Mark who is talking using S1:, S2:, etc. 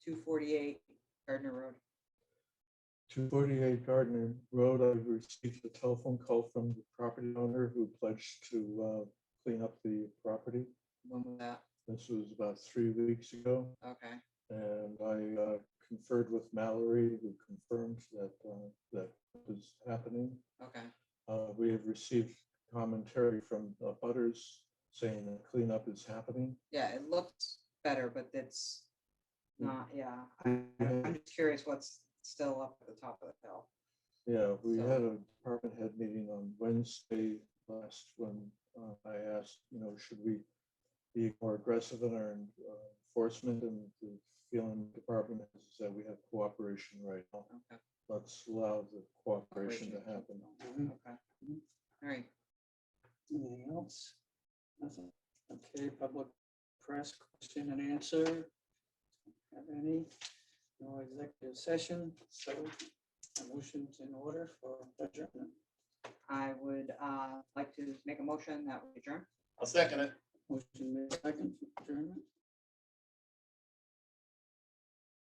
S1: two forty-eight Gardner Road.
S2: Two forty-eight Gardner Road, I received a telephone call from the property owner who pledged to uh, clean up the property.
S1: When was that?
S2: This was about three weeks ago,
S1: Okay,
S2: and I uh, conferred with Mallory, who confirmed that uh, that was happening.
S1: okay,
S2: Uh, We have received commentary from the butters saying that cleanup is happening.
S1: yeah, it looked better, but it's
S2: Mm.
S1: not, yeah, I-
S2: Yeah.
S1: I'm just curious what's still up at the top of the hill.
S2: Yeah, we
S1: So-
S2: had a department head meeting on Wednesday last when uh, I asked, you know, should we be more aggressive in our uh, enforcement and the feeling the department has is that we have cooperation right now.
S1: Okay.
S2: Let's allow the cooperation to
S1: Operation.
S2: happen.
S3: Mhm.
S1: Okay, all right,
S3: Anything else? Nothing. Okay, public press question and answer. Have any? No executive session, so a motion's in order for adjournment.
S1: I would uh like to make a motion that we adjourn.
S4: I'll second it.
S3: Motion made second for adjournment.